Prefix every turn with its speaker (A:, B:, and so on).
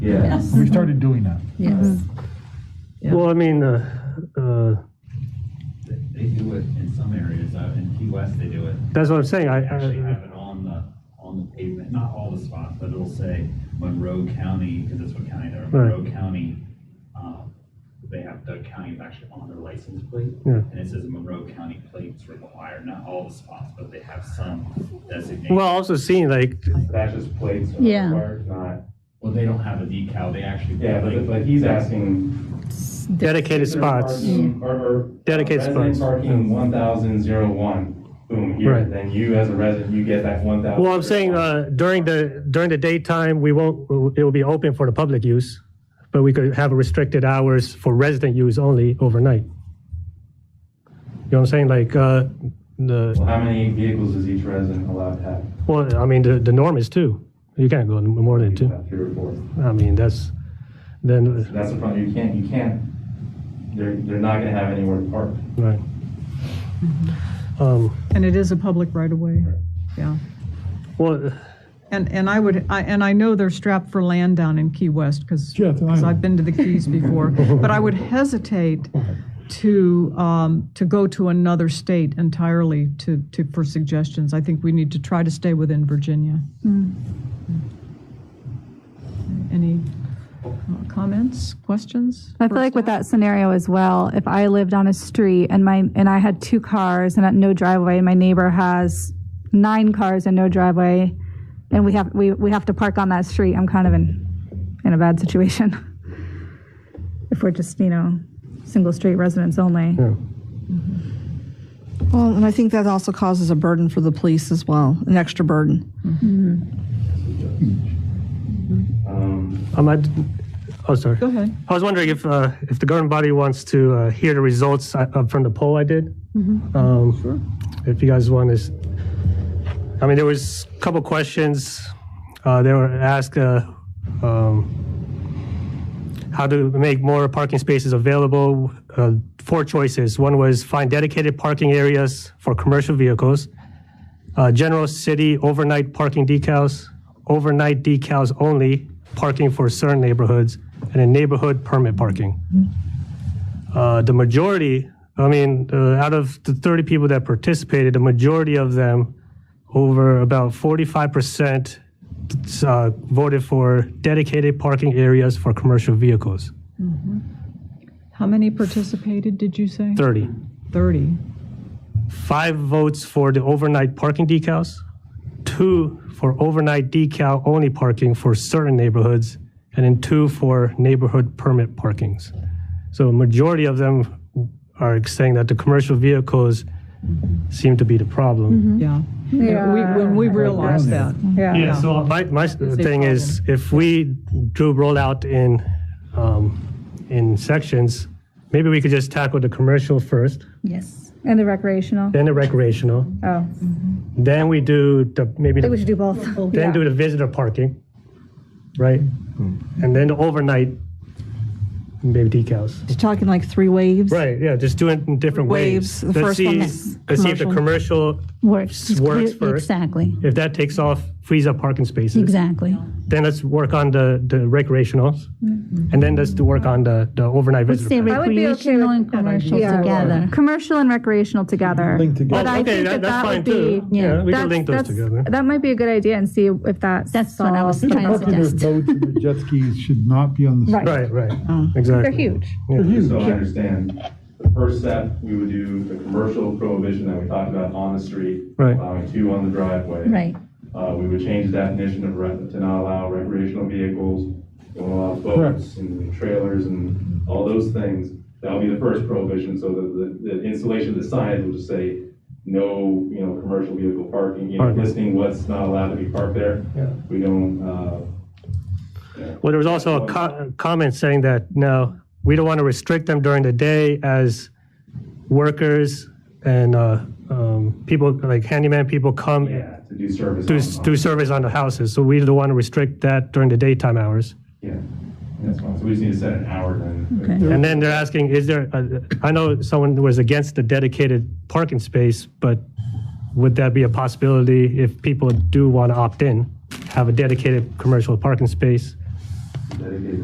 A: Yeah.
B: We started doing that.
C: Yes.
A: Yeah.
D: Well, I mean, uh, uh,
E: They they do it in some areas, out in Key West, they do it.
D: that's what I'm saying. I,
E: They Actually have
D: I,
E: it on the, on the pavement, not all the spots, but it'll say Monroe County, because that's what county they're, in,
D: Right.
E: Monroe County. um, They have, the county is actually on their license plate.
D: Yeah.
E: And it says Monroe County plates required, not all the spots, but they have some designated.
D: well, also seeing like,
F: That's just plates. are
C: Yeah.
F: required, Not,
E: Well, they don't have a decal, they actually.
F: yeah, but,
E: like,
F: but he's asking.
D: dedicated spots.
F: Parking- Or, or.
D: Dedicated
F: resident
D: spots.
F: Parking one thousand zero one, boom, here,
D: Right.
F: then you as a resident, you get that one thousand.
D: Well, I'm saying uh, during the, during the daytime, we won't, it will be open for the public use, but we could have restricted hours for resident use only overnight. You know what I'm saying? Like, uh, the,
F: Well, how many vehicles is each resident allowed to have?
D: well, I mean, the, the norm is two. You can't go more than two.
F: About Three or four.
D: I mean, that's, then,
F: That's the problem, you can't, you can't, they're, they're not gonna have anywhere to park.
D: right.
G: Mm-hmm.
D: Um,
G: And it is a public right-of-way, yeah.
D: Well,
G: And, and I would, I and I know they're strapped for land down in Key West, because,
B: Yeah, it's an island.
G: I've been to the Keys before, but I would hesitate to, um, to go to another state entirely to, to, for suggestions. I think we need to try to stay within Virginia. Any uh, comments, questions?
H: I feel like with that scenario as well, if I lived on a street and my and I had two cars and had no driveway, and my neighbor has nine cars and no driveway, and we have we, we have to park on that street, I'm kind of in in a bad situation. if we're just, you know, single street residents only.
D: yeah.
A: Well, and I think that also causes a burden for the police as well, an extra burden.
F: Um,
D: Um, I, oh, sorry.
G: Go ahead.
D: I was wondering if, uh, if the governing body wants to uh, hear the results I- uh, from the poll I did. Sure. If you guys want to, s- I mean, there was a couple questions. uh, They were asked uh, um, how to make more parking spaces available. Uh, Four choices. One was find dedicated parking areas for commercial vehicles, uh, general city overnight parking decals, overnight decals only, parking for certain neighborhoods, and a neighborhood permit parking. Uh, the majority, I mean, uh, out of the 30 people that participated, the majority of them, over about 45%, uh, voted for dedicated parking areas for commercial vehicles.
G: How many participated, did you say?
D: 30.
G: 30.
D: Five votes for the overnight parking decals, two for overnight decal only parking for certain neighborhoods, and then two for neighborhood permit parkings. So a majority of them are saying that the commercial vehicles seem to be the problem.
G: Yeah. Yeah. we- When we realized that.
D: Yeah, so my, my thing is, if we do roll out in, um, in sections, maybe we could just tackle the commercial first,
C: Yes.
H: And the recreational.
D: then the recreational,
H: Oh.
D: then we do the, maybe the
H: I think we should do both.
D: then do the visitor parking, right? And then the overnight, maybe decals.
A: You're talking like three waves?
D: Right, yeah, just do it in different waves.
A: Waves, the
D: Let's
A: first one
D: see-
A: that's
D: Let's see if the commercial,
C: Works. It's
D: Works
C: clear-
D: first.
C: Exactly,
D: if that takes off, frees up parking spaces.
C: exactly.
D: Then let's work on the, the recreationals,
H: Mm-hmm.
D: and then let's do work on the, the overnight
C: Let's
D: visitor.
C: say
D: parking.
H: would be okay
C: recreational
H: with
C: and
H: that
C: commercial
H: idea.
C: together.
H: Commercial and recreational together.
B: Linked together.
H: But I
D: Okay,
H: think
D: that-
H: that
D: that's
H: that
D: fine
H: would be.
D: too. Yeah, we can
H: that's-
D: link those
H: that's-
D: together.
H: That might be a good idea and see if that
C: That's what I was
H: solves the
C: trying to
H: problem.
B: Parking their
C: Yes.
B: boats and their jet skis should not be on the.
H: Right.
D: Right,
H: Oh.
D: right, exactly.
H: They're huge.
D: Yeah.
F: just so I understand, the first step, we would do the commercial prohibition that we talked about on the street.
D: Right.
F: Allowing two on the driveway.
C: Right.
F: Uh, we would change the definition of, re- to not allow recreational vehicles, don't allow boats and trailers and all those things. That'll be the first prohibition, so the, the, the installation of the signs will just say, no, you know, commercial vehicle parking, you know,
D: Parking.
F: listing what's not allowed to be parked there.
D: Yeah.
F: We don't, uh,
D: Well, there was also a co- a comment saying that, no, we don't want to restrict them during the day as workers and uh, um, people, like handyman people come
F: yeah, to do service.
D: do,
F: on- on-
D: do service on the houses. So we don't want to restrict that during the daytime hours.
F: Yeah, that's fine, so we just need to set an hour then.
G: Okay.
D: And then they're asking, is there, a- I know someone was against the dedicated parking space, but would that be a possibility if people do want to opt in, have a dedicated commercial parking space?
F: dedicated